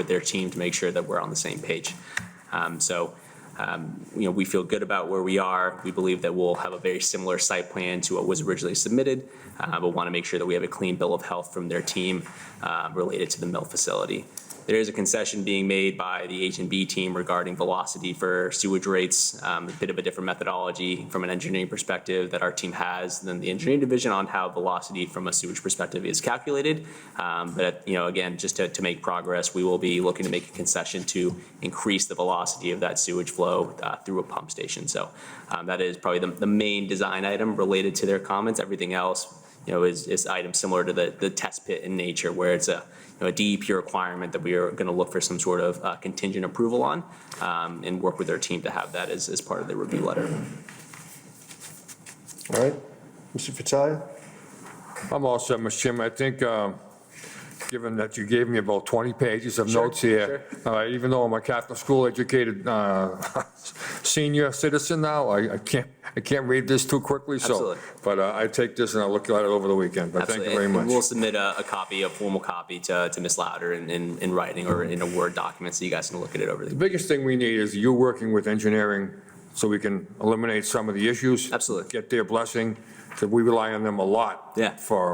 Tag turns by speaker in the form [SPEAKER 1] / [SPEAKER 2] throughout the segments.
[SPEAKER 1] with their team to make sure that we're on the same page. Um, So, um, you know, we feel good about where we are. We believe that we'll have a very similar site plan to what was originally submitted, uh, but want to make sure that we have a clean bill of health from their team uh, related to the mill facility. There is a concession being made by the H and B team regarding velocity for sewage rates, um, a bit of a different methodology from an engineering perspective that our team has than the engineering division on how velocity from a sewage perspective is calculated. Um, But, you know, again, just to, to make progress, we will be looking to make a concession to increase the velocity of that sewage flow uh, through a pump station. So um, that is probably the, the main design item related to their comments. Everything else, you know, is, is item similar to the, the test pit in nature, where it's a, you know, a DEP requirement that we are going to look for some sort of uh, contingent approval on, um, and work with their team to have that as, as part of the review letter.
[SPEAKER 2] All right, Mr. Fattalia?
[SPEAKER 3] I'm all set, Mr. Chairman. I think, um, given that you gave me about 20 pages of
[SPEAKER 1] Sure,
[SPEAKER 3] notes here, uh, even though I'm a Catholic school educated uh, senior citizen now, I I can't, I can't read this too quickly, so.
[SPEAKER 1] Absolutely.
[SPEAKER 3] But uh, I take this and I'll look at it over the weekend, but thank you
[SPEAKER 1] Absolutely.
[SPEAKER 3] very
[SPEAKER 1] And- and We'll
[SPEAKER 3] much.
[SPEAKER 1] submit a, a copy, a formal copy to, to Ms. Louder in, in, in writing or in a Word document, so you guys can look at it over
[SPEAKER 3] The
[SPEAKER 1] the.
[SPEAKER 3] biggest thing we need is you working with engineering so we can eliminate some of the issues.
[SPEAKER 1] Absolutely.
[SPEAKER 3] Get their blessing, because we rely on them a lot.
[SPEAKER 1] Yeah.
[SPEAKER 3] For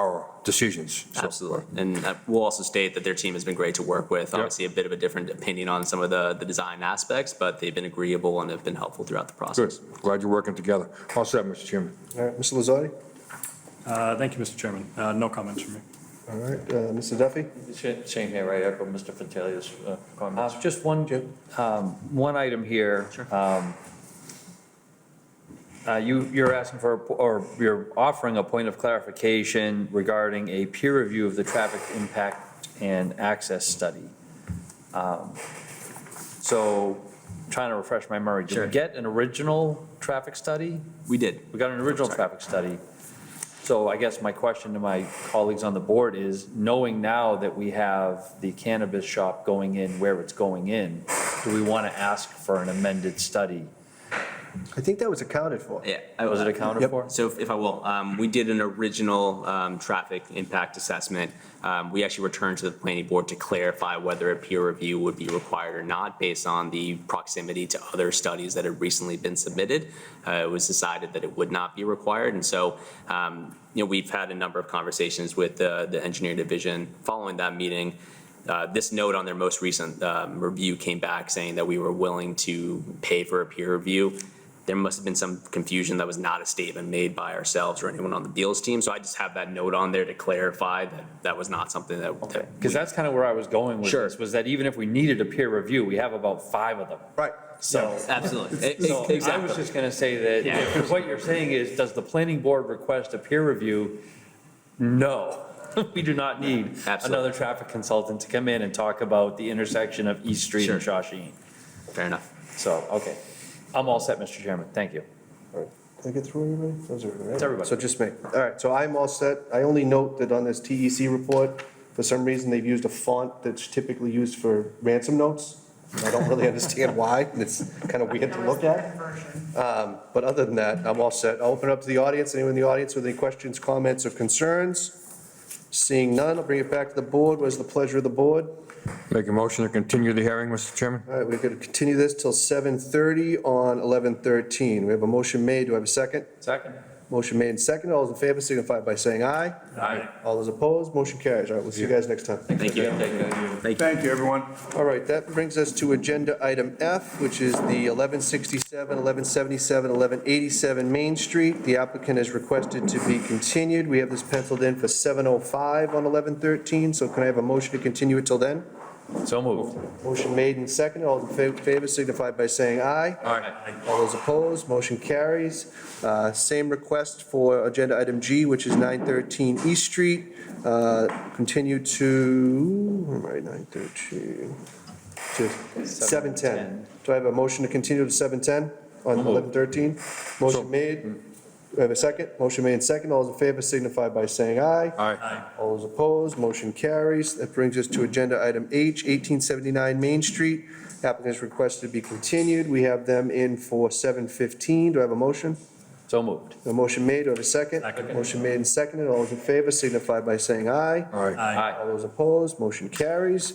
[SPEAKER 3] our decisions. So,
[SPEAKER 1] Absolutely. And uh, we'll also state that their team has been great to work with. Obviously, a bit of a different opinion on some of the, the design aspects, but they've been agreeable and have been helpful throughout the
[SPEAKER 3] Good.
[SPEAKER 1] process.
[SPEAKER 3] Glad you're working together. All set, Mr. Chairman.
[SPEAKER 2] All right, Mr. Lozotti?
[SPEAKER 4] Uh, Thank you, Mr. Chairman. Uh, No comments from me.
[SPEAKER 2] All right, uh, Mr. Duffy?
[SPEAKER 5] Sa- Same here, right, echo Mr. Fatalia's uh, comments. Just one, um, one item here. Um, uh, You, you're asking for, a po- or you're offering a point of clarification regarding a peer review of the traffic impact and access study. Um, So, trying to refresh my memory, did
[SPEAKER 1] Sure.
[SPEAKER 5] we get an original traffic study?
[SPEAKER 1] We did.
[SPEAKER 5] We got an original traffic study. So I guess my question to my colleagues on the board is, knowing now that we have the cannabis shop going in where it's going in, do we want to ask for an amended study?
[SPEAKER 2] I think that was accounted for.
[SPEAKER 1] Yeah. uh,
[SPEAKER 5] Was it accounted for?
[SPEAKER 1] So if- if I will, um, we did an original um, traffic impact assessment. Um, We actually returned to the planning board to clarify whether a peer review would be required or not based on the proximity to other studies that had recently been submitted. Uh, It was decided that it would not be required. And so, um, you know, we've had a number of conversations with uh, the engineering division following that meeting. Uh, This note on their most recent um, review came back saying that we were willing to pay for a peer review there must have been some confusion that was not a statement made by ourselves or anyone on the Beals team. So I just have that note on there to clarify that that was not something that. that
[SPEAKER 5] Because that's kind of where I was going with
[SPEAKER 1] Sure.
[SPEAKER 5] this, was that even if we needed a peer review, we have about five of them.
[SPEAKER 2] Right.
[SPEAKER 5] So,
[SPEAKER 1] Absolutely. E-
[SPEAKER 5] so
[SPEAKER 1] e-
[SPEAKER 5] I was
[SPEAKER 1] Exactly.
[SPEAKER 5] just going to say that, if what you're saying is, does the planning board request a peer review? No, we do not need
[SPEAKER 1] Absolutely.
[SPEAKER 5] another traffic consultant to come in and talk about the intersection of East Street and Shawshene.
[SPEAKER 1] Fair enough.
[SPEAKER 5] So, okay. I'm all set, Mr. Chairman. Thank you.
[SPEAKER 2] Did I get through everybody? Those are, right?
[SPEAKER 5] It's everybody.
[SPEAKER 2] So just me. All right, so I'm all set. I only note that on this TEC report, for some reason, they've used a font that's typically used for ransom notes. And I don't really understand why, and it's kind of weird to look at. Um, But other than that, I'm all set. I'll open it up to the audience. Anyone in the audience with any questions, comments, or concerns? Seeing none, I'll bring it back to the board. What is the pleasure of the board?
[SPEAKER 3] Make a motion to continue the hearing, Mr. Chairman?
[SPEAKER 2] All right, we're going to continue this till 7:30 on 11:13. We have a motion made. Do I have a second?
[SPEAKER 5] Second.
[SPEAKER 2] Motion made and seconded. All those in favor signify by saying aye.
[SPEAKER 5] Aye.
[SPEAKER 2] All those opposed, motion carries. All right, we'll see you guys next time.
[SPEAKER 1] Thank you. Thank you.
[SPEAKER 2] All right, that brings us to agenda item F, which is the 1167, 1177, 1187 Main Street. The applicant has requested to be continued. We have this penciled in for 7:05 on 11:13, so can I have a motion to continue it till then?
[SPEAKER 5] So moved.
[SPEAKER 2] Motion made and seconded. All those in fa- favor signify by saying aye. All those opposed, motion carries. Uh, Same request for agenda item G, which is 913 East Street. Uh, Continue to, where am I, 913, to 710. Do I have a motion to continue to 710 on 1113? Motion made, Do I have a second? Motion made and second. All those in favor signify by saying aye.
[SPEAKER 3] Aye.
[SPEAKER 2] All those opposed, motion carries. That brings us to agenda item H, 1879 Main Street. Applicants requested to be continued. We have them in for 7:15. Do I have a motion?
[SPEAKER 5] So moved.
[SPEAKER 2] A motion made, do I have a second?
[SPEAKER 4] Second.
[SPEAKER 2] Motion made and seconded. All those in favor signify by saying aye.
[SPEAKER 3] Aye.
[SPEAKER 4] Aye.
[SPEAKER 2] All those opposed, motion carries.